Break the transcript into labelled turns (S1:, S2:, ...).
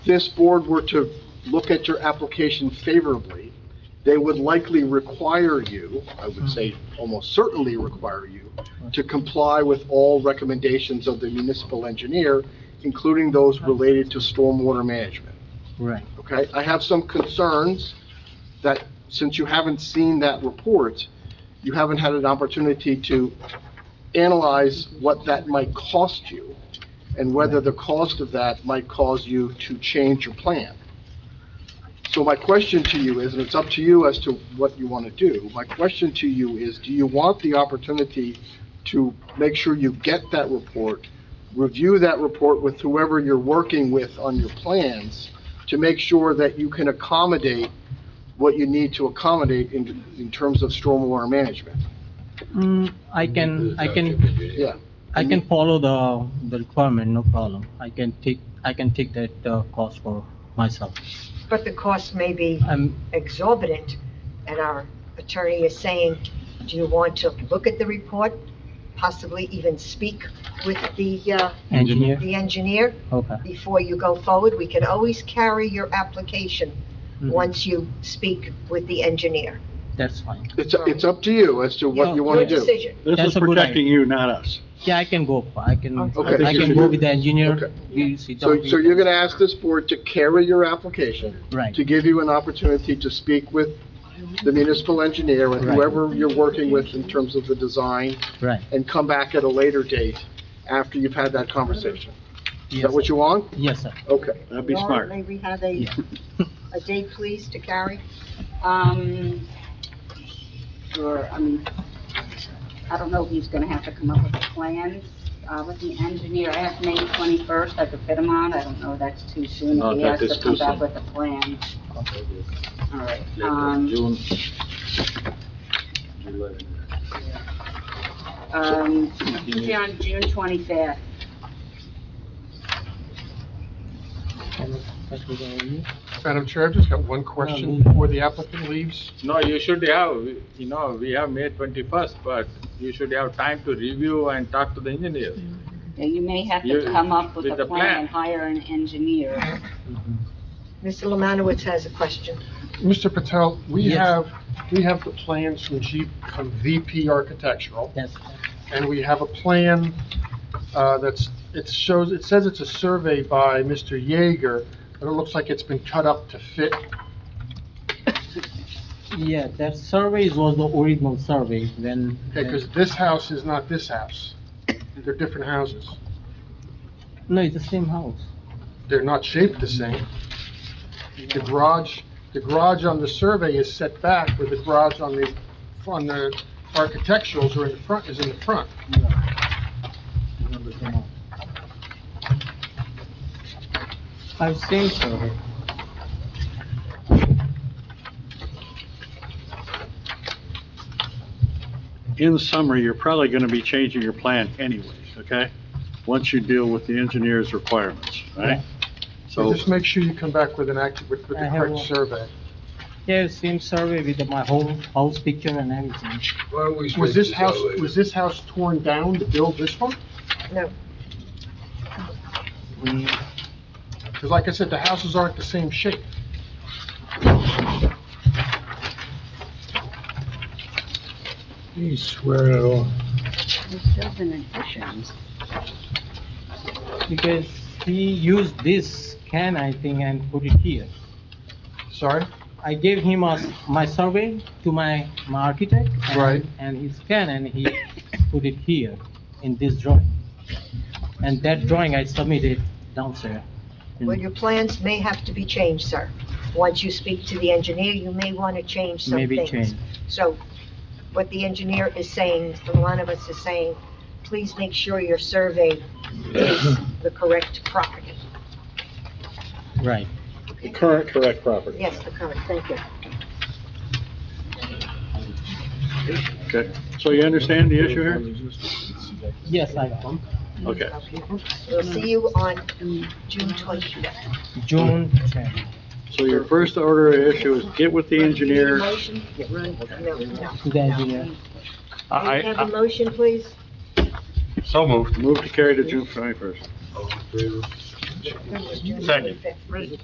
S1: this board were to look at your application favorably, they would likely require you, I would say almost certainly require you, to comply with all recommendations of the municipal engineer, including those related to stormwater management,
S2: Right.
S1: okay? I have some concerns that, since you haven't seen that report, you haven't had an opportunity to analyze what that might cost you, and whether the cost of that might cause you to change your plan. So my question to you is, and it's up to you as to what you want to do, my question to you is, do you want the opportunity to make sure you get that report, review that report with whoever you're working with on your plans, to make sure that you can accommodate what you need to accommodate in, in terms of stormwater management?
S2: Mm, I can, I can,
S1: Yeah.
S2: I can follow the, the requirement, no problem. I can take, I can take that, uh, cost for myself.
S3: But the cost may be
S2: Um,
S3: exorbitant, and our attorney is saying, do you want to look at the report? Possibly even speak with the, uh,
S2: engineer,
S3: the engineer
S2: okay.
S3: before you go forward? We can always carry your application
S2: Mhm.
S3: once you speak with the engineer.
S2: That's fine.
S1: It's, it's up to you as to what you want to
S3: Your
S1: do.
S3: decision.
S4: This
S2: That's
S4: is
S2: a good
S4: protecting you, not us.
S2: Yeah, I can go, I can,
S1: Okay.
S2: I can go with the engineer.
S1: Okay.
S2: We sit
S1: So,
S2: down,
S1: so
S2: we-
S1: you're gonna ask this board to carry your application,
S2: Right,
S1: to give you an opportunity to speak with the municipal engineer and
S2: Right.
S1: whoever you're working with in terms of the design,
S2: right.
S1: and come back at a later date after you've had that conversation. Is
S2: Yes,
S1: that what you want?
S2: yes, sir.
S1: Okay.
S4: That'd be
S5: Laura,
S4: smart.
S5: May we have a,
S2: Yeah.
S5: a date, please, to carry? Um, Or, I mean, I don't know, he's gonna have to come up with a plan, uh, with the engineer. I have May twenty-first, I could fit him on, I don't know, that's too soon.
S4: No,
S5: He
S4: that
S5: has
S4: is
S5: to
S4: too
S5: come back
S4: soon.
S5: with a plan. All right, um,
S4: June.
S5: um, Tuesday on June twenty-fifth.
S6: Madam Chair, I've just got one
S2: Um,
S6: question before the applicant leaves.
S7: No, you should have, you know, we have May twenty-first, but you should have time to review and talk to the engineer.
S5: Yeah, You may have to
S7: You-
S5: come up with
S7: with
S5: a
S7: the plan.
S5: plan, hire an engineer.
S3: Mr. Lemanowitz has a question.
S6: Mr. Patel, we
S2: Yes.
S6: have, we have the plans from G- from VP Architectural,
S2: Yes,
S6: and we have a plan uh, that's, it shows, it says it's a survey by Mr. Jaeger, but it looks like it's been cut up to fit.
S2: yeah, that survey was the original survey when.
S6: Okay, because this house is not this house. They're different houses.
S2: No, it's the same house.
S6: They're not shaped the same. The garage, the garage on the survey is set back, where the garage on the, on the architecturals are in the front, is in the front.
S2: I've seen survey.
S4: In summary, you're probably gonna be changing your plan anyways, okay? Once you deal with the engineer's requirements, right?
S6: So
S4: So,
S6: just make sure you come back with an act, with with
S2: I
S6: the
S2: have
S6: correct
S2: one.
S6: survey.
S2: Yeah, same survey with my whole house picture and everything.
S8: Why don't we
S6: Was
S8: switch
S6: this
S8: this
S6: house,
S8: out later?
S6: was this house torn down to build this one?
S3: No.
S6: Because like I said, the houses aren't the same shape.
S8: He's swearing it all.
S5: There's just an addition.
S2: Because he used this can, I think, and put it here.
S6: Sorry?
S2: I gave him a, my survey to my, my architect. and-
S6: Right.
S2: And his can, and he put it here in this drawing. And that drawing I submitted downstairs.
S3: Well,
S2: Hmm.
S3: your plans may have to be changed, sir. Once you speak to the engineer, you may want to change some
S2: Maybe
S3: things.
S2: change.
S3: So what the engineer is saying, the one of us is saying, please make sure your survey is the correct property.
S2: Right.
S4: current correct property.
S3: Yes, the correct, thank you.
S4: Okay, so you understand the issue here?
S2: Yes, I,
S4: Okay.
S3: We'll see you on June twenty-fifth.
S2: June 10th.
S4: So your first order of issue is get with the engineer.
S3: Motion? No, no.
S2: to the engineer.
S3: May we Have a motion, please?
S8: So moved.
S4: Move to carry to June 21st.
S3: It was June
S8: Second.
S3: 25th.